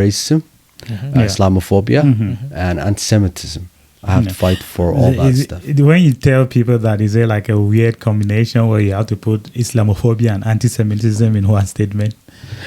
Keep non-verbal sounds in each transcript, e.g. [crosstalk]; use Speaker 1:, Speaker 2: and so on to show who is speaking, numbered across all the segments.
Speaker 1: racism, uh,
Speaker 2: Mm-hmm. Yeah. Mm-hmm.
Speaker 1: Islamophobia, and anti-Semitism. I have to fight for all that
Speaker 2: Is-
Speaker 1: stuff.
Speaker 2: When you tell people that, is it like a weird combination where you have to put Islamophobia and anti-Semitism in one statement?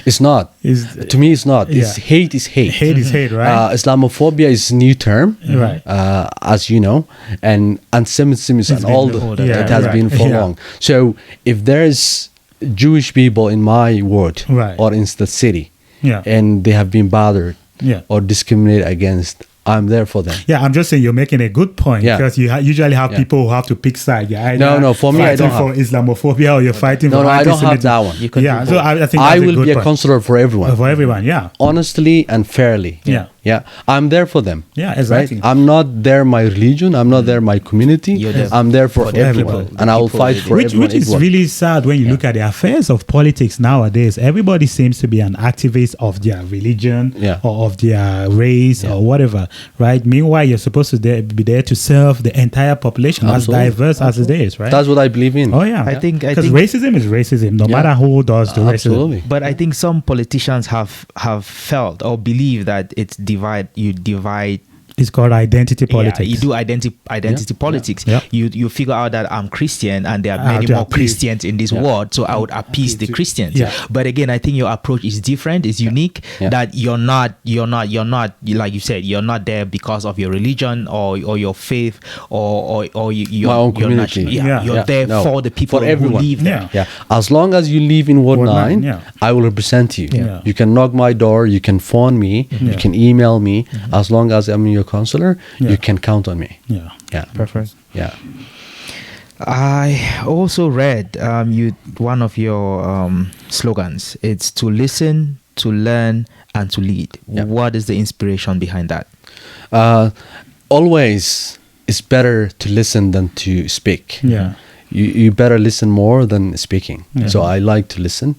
Speaker 1: It's not.
Speaker 2: Is-
Speaker 1: to me, it's not. It's
Speaker 2: Yeah.
Speaker 1: hate is hate.
Speaker 2: Hate is hate, right?
Speaker 1: Uh, Islamophobia is a new term,
Speaker 2: Right.
Speaker 1: Uh, as you know, and anti-Semitism is an
Speaker 3: been
Speaker 1: old.
Speaker 3: old,
Speaker 1: it
Speaker 2: yeah,
Speaker 1: has
Speaker 2: right.
Speaker 1: been for
Speaker 2: Yeah.
Speaker 1: long. So if there is Jewish people in my ward
Speaker 2: Right.
Speaker 1: or in the city,
Speaker 2: Yeah.
Speaker 1: and they have been bothered
Speaker 2: Yeah.
Speaker 1: or discriminated against, I'm there for them.
Speaker 2: yeah, I'm just saying you're making a good point
Speaker 1: Yeah.
Speaker 2: because you ha- usually have
Speaker 1: Yeah.
Speaker 2: people who have to pick side. You're either
Speaker 1: No, no, for me, I
Speaker 2: fighting
Speaker 1: don't
Speaker 2: for Islamophobia or you're fighting
Speaker 1: No,
Speaker 2: for
Speaker 1: no, I don't have
Speaker 2: anti-Semitism.
Speaker 1: that one.
Speaker 3: You can
Speaker 2: yeah,
Speaker 3: do
Speaker 2: so
Speaker 3: both.
Speaker 2: I, I think
Speaker 1: I
Speaker 2: that's a
Speaker 1: will
Speaker 2: good
Speaker 1: be a
Speaker 2: point.
Speaker 1: counselor for everyone.
Speaker 2: for everyone. Yeah,
Speaker 1: honestly and fairly.
Speaker 2: Yeah.
Speaker 1: Yeah. I'm there for them.
Speaker 2: Yeah, exactly.
Speaker 1: Right? I'm not there my religion. I'm not there my community.
Speaker 3: You're there
Speaker 1: I'm there for,
Speaker 3: for the
Speaker 1: everyone.
Speaker 3: people, the
Speaker 1: and I will
Speaker 3: people
Speaker 1: fight
Speaker 3: you
Speaker 1: for
Speaker 3: did.
Speaker 2: which
Speaker 1: everyone.
Speaker 2: which is
Speaker 1: equal.
Speaker 2: really sad when you look at the affairs of politics nowadays. Everybody seems to be an activist of their religion
Speaker 1: Yeah.
Speaker 2: or of their race or whatever, right? Meanwhile, you're supposed to there, be there to serve the entire population
Speaker 1: Absolutely.
Speaker 2: as diverse as it is, right?
Speaker 1: That's what I believe in.
Speaker 2: oh yeah,
Speaker 3: I think- I
Speaker 2: because
Speaker 3: think-
Speaker 2: racism is racism, no
Speaker 1: Yeah.
Speaker 2: matter who does the
Speaker 1: Absolutely.
Speaker 2: racism.
Speaker 3: But I think some politicians have have felt or believe that it's divide. You divide.
Speaker 2: It's called identity politics.
Speaker 3: Yeah, you do identity identity politics.
Speaker 2: Yeah.
Speaker 3: You you figure out that I'm Christian and there are
Speaker 2: I have
Speaker 3: many
Speaker 2: to
Speaker 3: more
Speaker 2: appeal.
Speaker 3: Christians in this world, so I would appease the Christians.
Speaker 2: Yeah.
Speaker 3: But again, I think your approach is different. It's unique
Speaker 1: Yeah.
Speaker 3: that you're not you're not you're not you- like you said you're not there because of your religion or or your faith or or, or you, your,
Speaker 1: My own
Speaker 3: your
Speaker 1: community.
Speaker 3: nation. Yeah,
Speaker 2: Yeah.
Speaker 3: You're
Speaker 1: Yeah,
Speaker 3: there
Speaker 1: no,
Speaker 3: for the people
Speaker 1: for
Speaker 3: who
Speaker 1: everyone.
Speaker 3: live there.
Speaker 1: Yeah. As long as you live in Ward,
Speaker 2: Ward
Speaker 1: 9,
Speaker 2: nine, yeah.
Speaker 1: I will represent you.
Speaker 2: Yeah. Mm-hmm.
Speaker 1: You can knock my door. You can phone me. You
Speaker 2: Yeah.
Speaker 1: can email me.
Speaker 2: Mm-hmm.
Speaker 1: As long as I'm your counselor, you can count on me.
Speaker 2: yeah,
Speaker 1: Yeah.
Speaker 3: Preference.
Speaker 1: Yeah.
Speaker 3: I also read um, you one of your um, slogans. It's to listen, to learn, and to lead.
Speaker 1: Yeah.
Speaker 3: What is the inspiration behind that?
Speaker 1: Uh, always, it's better to listen than to speak.
Speaker 2: yeah.
Speaker 1: you, you better listen more than speaking. So I like to listen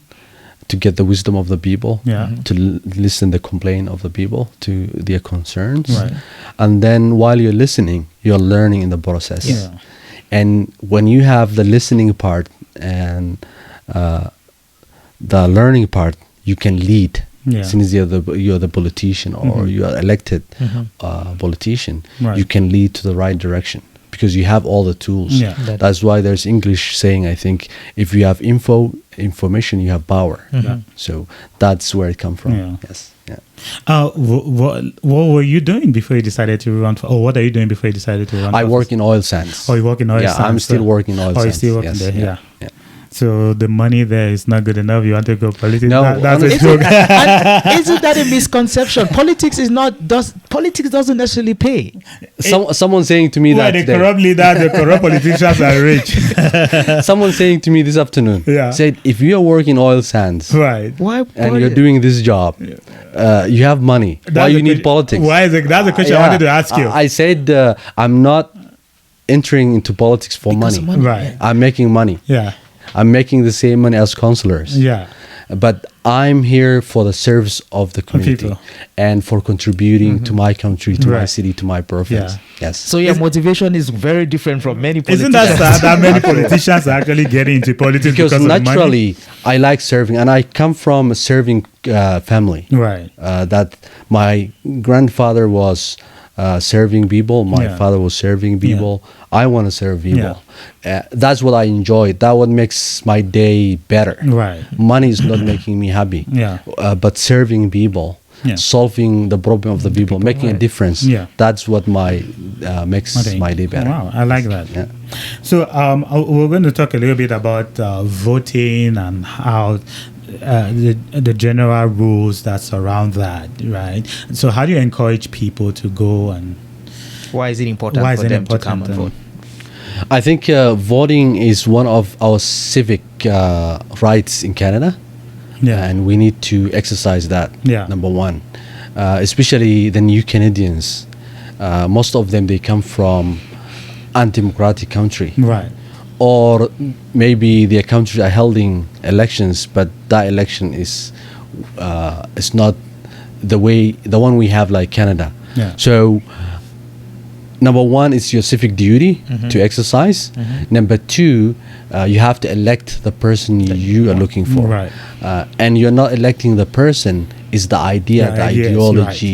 Speaker 1: to get the wisdom of the people,
Speaker 2: Yeah. Mhm.
Speaker 1: to l- listen the complaint of the people, to their concerns.
Speaker 2: Right.
Speaker 1: And then while you're listening, you're learning in the process.
Speaker 2: Yeah.
Speaker 1: And when you have the listening part and uh, the learning part, you can lead.
Speaker 2: Yeah.
Speaker 1: Since you're the you're the politician or you are elected uh, politician,
Speaker 2: Mm-hmm. Right.
Speaker 1: you can lead to the right direction because you have all the tools.
Speaker 2: Yeah.
Speaker 3: That-
Speaker 1: That's why there's English saying. I think if you have info, information, you have power.
Speaker 2: Yeah.
Speaker 1: So that's where it comes from.
Speaker 2: Mm-hmm. Yeah.
Speaker 1: Yes. Yeah.
Speaker 2: Uh, wh- what what were you doing before you decided to run for? Or what are you doing before you decided to run?
Speaker 1: I
Speaker 2: for
Speaker 1: work
Speaker 2: office?
Speaker 1: in oil sands.
Speaker 2: Oh, you work in oil
Speaker 1: yeah, I'm
Speaker 2: sands,
Speaker 1: still
Speaker 2: so-
Speaker 1: working oil
Speaker 2: Oh,
Speaker 1: sands.
Speaker 2: you're still working
Speaker 1: yes,
Speaker 2: there. Yeah.
Speaker 1: yeah.
Speaker 2: So the money there is not good enough. You want to go politics?
Speaker 1: No,
Speaker 2: That- that's a
Speaker 1: honestly- [laughs]
Speaker 2: joke.
Speaker 3: [laughs] And isn't that a misconception? Politics is not does politics doesn't necessarily pay.
Speaker 1: Some, someone saying to me
Speaker 2: Who
Speaker 1: that
Speaker 2: are the
Speaker 1: today-
Speaker 2: corrupt leaders? The
Speaker 1: [laughs]
Speaker 2: corrupt politicians are rich,
Speaker 1: someone saying to me this afternoon
Speaker 2: [laughs] Yeah.
Speaker 1: said if you are working oil sands
Speaker 2: right?
Speaker 3: Why?
Speaker 1: and
Speaker 3: why-
Speaker 1: you're doing this job, uh, you have money. why
Speaker 2: That's
Speaker 1: you
Speaker 2: the
Speaker 1: need politics?
Speaker 2: question- Why is it, that's the question I
Speaker 1: Yeah.
Speaker 2: wanted to ask you.
Speaker 1: I, I said uh, I'm not entering into politics for
Speaker 3: Because
Speaker 1: money.
Speaker 3: of
Speaker 2: right?
Speaker 1: I'm making money.
Speaker 2: Yeah,
Speaker 1: I'm making the same money as counselors.
Speaker 2: yeah,
Speaker 1: But I'm here for the service of the community
Speaker 2: people. Mm-hmm.
Speaker 1: and for contributing to my country, to my
Speaker 2: Right.
Speaker 1: city, to my province.
Speaker 2: Yeah.
Speaker 1: Yes.
Speaker 3: So your motivation is very different from many
Speaker 2: Isn't
Speaker 3: politicians.
Speaker 2: that sad that many politicians are actually getting into politics because,
Speaker 1: because
Speaker 2: of the money?
Speaker 1: naturally, I like serving, and I come from a serving uh, family.
Speaker 2: right?
Speaker 1: uh, that my grandfather was uh, serving people, my
Speaker 2: Yeah.
Speaker 1: father was serving people. I want to serve people. Uh, that's what I enjoy. That what makes my day better.
Speaker 2: Right.
Speaker 1: Money is not making me happy.
Speaker 2: [clears throat] Yeah.
Speaker 1: Uh, but serving people,
Speaker 2: Yeah.
Speaker 1: solving the problem of the people, making a difference.
Speaker 2: Yeah.
Speaker 1: That's what my uh, makes
Speaker 2: Okay.
Speaker 1: my day better.
Speaker 2: Oh, Wow, I like that.
Speaker 1: Yeah.
Speaker 2: So um, uh, we're going to talk a little bit about uh, voting and how uh, the, the general rules that surround that, right? So how do you encourage people to go and
Speaker 3: Why is it important
Speaker 2: Why is
Speaker 3: for
Speaker 2: it
Speaker 3: them to come
Speaker 2: important,
Speaker 3: and
Speaker 2: um,
Speaker 3: vote?
Speaker 1: I think uh, voting is one of our civic uh, rights in Canada.
Speaker 2: yeah,
Speaker 1: and we need to exercise that.
Speaker 2: Yeah.
Speaker 1: Number one, uh, especially the new Canadians, uh, most of them they come from undemocratic country,
Speaker 2: right,
Speaker 1: or maybe their country are holding elections, but that election is uh, is not the way the one we have like Canada.
Speaker 2: Yeah.
Speaker 1: So. Number one is your civic duty to exercise. Number two, uh, you have to elect the person you are looking for
Speaker 2: Right.
Speaker 1: uh, and you're not electing the person is the idea,
Speaker 2: The
Speaker 1: the
Speaker 2: ideas, right.
Speaker 1: ideology,